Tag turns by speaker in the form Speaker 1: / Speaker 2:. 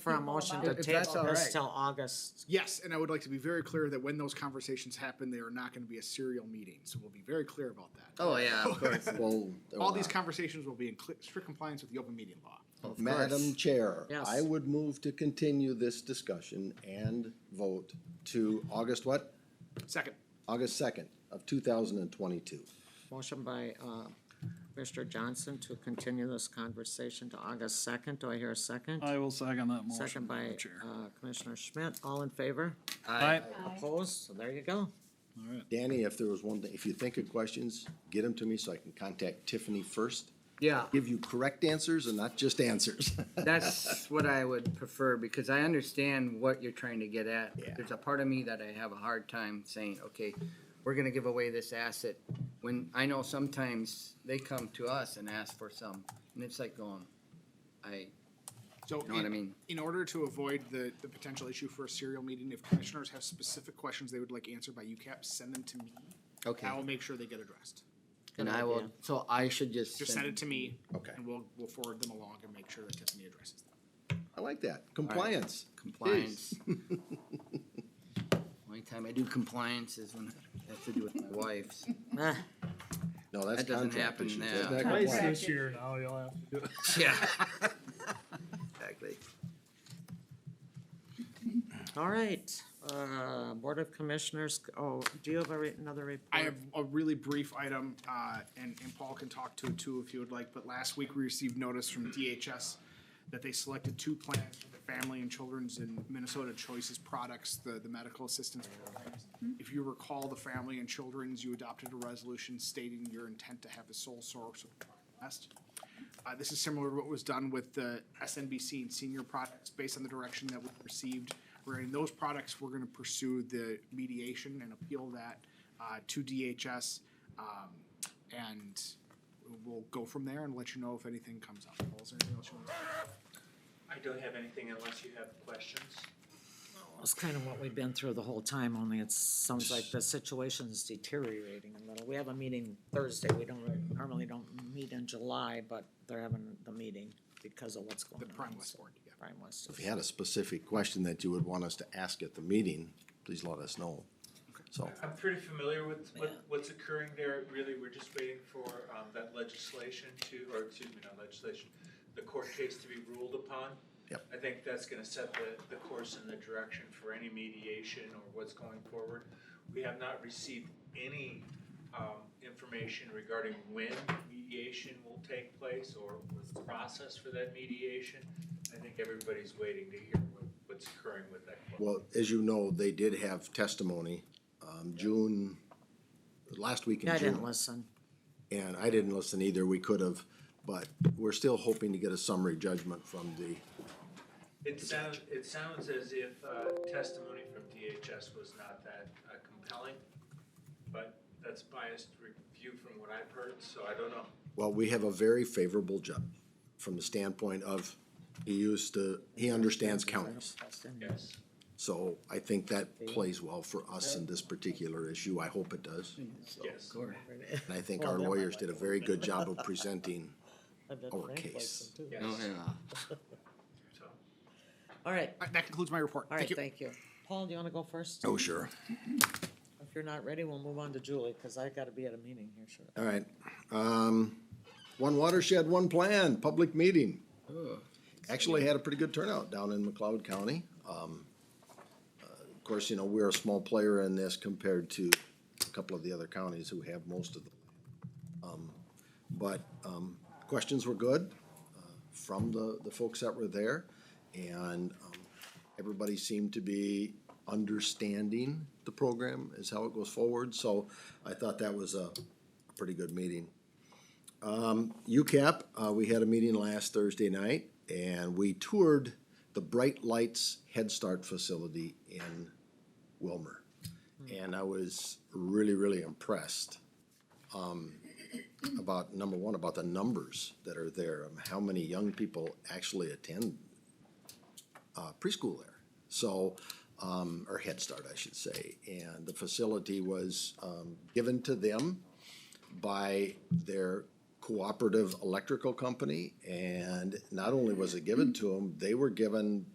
Speaker 1: for a motion to
Speaker 2: If that's
Speaker 1: table
Speaker 2: all
Speaker 1: this
Speaker 2: right.
Speaker 1: till August.
Speaker 3: Yes, and I would like to be very clear that when those conversations happen, they are not going to be a serial meeting. So we'll be very clear about that.
Speaker 2: Oh, yeah, of course.
Speaker 4: Well,
Speaker 3: All these conversations will be in cl- strict compliance with the open meeting law.
Speaker 2: Of
Speaker 4: Madam
Speaker 2: course.
Speaker 4: Chair,
Speaker 1: Yes.
Speaker 4: I would move to continue this discussion and vote to August what?
Speaker 3: Second,
Speaker 4: August second of two thousand and twenty-two.
Speaker 1: Motion by, uh, Commissioner Johnson to continue this conversation to August second. Do I hear a second?
Speaker 5: I will second that motion.
Speaker 1: Second by,
Speaker 5: Madam Chair.
Speaker 1: uh, Commissioner Schmidt. All in favor?
Speaker 5: Aye.
Speaker 1: Opposed? So there you go.
Speaker 5: All right.
Speaker 4: Danny, if there was one, thing, if you think of questions, get them to me so I can contact Tiffany first.
Speaker 2: Yeah,
Speaker 4: Give you correct answers and not just answers.
Speaker 2: that's what I would prefer, because I understand what you're trying to get at.
Speaker 4: Yeah.
Speaker 2: There's a part of me that I have a hard time saying, okay, we're gonna give away this asset, when I know sometimes they come to us and ask for some, and it's like going, I,
Speaker 3: so.
Speaker 2: know what I
Speaker 3: in-
Speaker 2: mean?
Speaker 3: In order to avoid the, the potential issue for a serial meeting, if commissioners have specific questions they would like answered by UCAP, send them to me.
Speaker 2: okay,
Speaker 3: I will make sure they get addressed.
Speaker 2: and I will, so I should just.
Speaker 3: Just send it to me.
Speaker 4: Okay.
Speaker 3: And we'll, we'll forward them along and make sure that Tiffany addresses them.
Speaker 4: I like that. Compliance.
Speaker 2: Compliance. Only time I do compliance is when I have to do with my wife's.
Speaker 1: Ah,
Speaker 4: No, that's
Speaker 2: That doesn't
Speaker 4: contract
Speaker 2: happen
Speaker 4: issues.
Speaker 2: now.
Speaker 4: That's not
Speaker 6: Twice
Speaker 4: compliance.
Speaker 6: this year now, you'll have to do it.
Speaker 2: Yeah. Exactly.
Speaker 1: All right, uh, Board of Commissioners, oh, do you have a re- another report?
Speaker 3: I have a really brief item, uh, and, and Paul can talk to it too if you would like, but last week we received notice from DHS that they selected two plans for the Family and Children's and Minnesota Choices products, the, the medical assistance programs. If you recall, the Family and Children's, you adopted a resolution stating your intent to have a sole source of West. Uh, this is similar to what was done with the SNBC and senior products, based on the direction that we received. Where in those products, we're gonna pursue the mediation and appeal that, uh, to DHS. Um, and we'll go from there and let you know if anything comes up. Paul, is there anything else you want to?
Speaker 7: I don't have anything unless you have questions.
Speaker 1: It's kind of what we've been through the whole time, only it sounds like the situation's deteriorating a little. We have a meeting Thursday, we don't, really- normally don't meet in July, but they're having the meeting because of what's going
Speaker 3: The
Speaker 1: on.
Speaker 3: Prime West
Speaker 1: so-
Speaker 3: Board, yeah.
Speaker 1: Prime West.
Speaker 4: If you had a specific question that you would want us to ask at the meeting, please let us know. So,
Speaker 7: I'm pretty familiar with what, what's occurring there. Really, we're just waiting for, um, that legislation to, or excuse me, not legislation, the court case to be ruled upon.
Speaker 4: Yep.
Speaker 7: I think that's gonna set the, the course and the direction for any mediation or what's going forward. We have not received any, um, information regarding when mediation will take place or what's the process for that mediation. I think everybody's waiting to hear what, what's occurring with that. court.
Speaker 4: well, as you know, they did have testimony, um, June, last week
Speaker 1: Yeah,
Speaker 4: in
Speaker 1: I didn't
Speaker 4: June.
Speaker 1: listen.
Speaker 4: And I didn't listen either, we could have, but we're still hoping to get a summary judgment from the,
Speaker 7: It sounds, it sounds as if uh, testimony from DHS was not that uh, compelling, but that's biased review from what I've heard, so I don't know.
Speaker 4: well, we have a very favorable judge from the standpoint of he used to, he understands counties.
Speaker 7: Yes.
Speaker 4: So I think that plays well for us in this particular issue, I hope it does.
Speaker 7: Yes.
Speaker 4: And I think our lawyers did a very good job of presenting Our case.
Speaker 7: Yes.
Speaker 2: Oh, yeah.
Speaker 7: So,
Speaker 1: All right,
Speaker 3: Uh, That concludes my report.
Speaker 1: all
Speaker 3: Thank
Speaker 1: right,
Speaker 3: you.
Speaker 1: thank you. Paul, do you wanna go first?
Speaker 4: Oh, sure.
Speaker 1: If you're not ready, we'll move on to Julie, cause I gotta be at a meeting here shortly.
Speaker 4: All right. Um, one watershed, one plan, public meeting.
Speaker 2: 嗯
Speaker 4: Actually had a pretty good turnout down in McLeod County. Um, uh, of course, you know, we're a small player in this compared to a couple of the other counties who have most of the. um, But, um, questions were good uh, from the, the folks that were there. And, um, everybody seemed to be understanding the program is how it goes forward. So I thought that was a, pretty good meeting. Um, UCAP, uh, we had a meeting last Thursday night and we toured the Bright Lights Head Start facility in Wilmer. And I was really, really impressed, um, about, number one, about the numbers that are there, um, how many young people actually attend, uh, preschool there. So, um, or Head Start, I should say, and the facility was, um, given to them by their cooperative electrical company. And not only was it given to them, they were given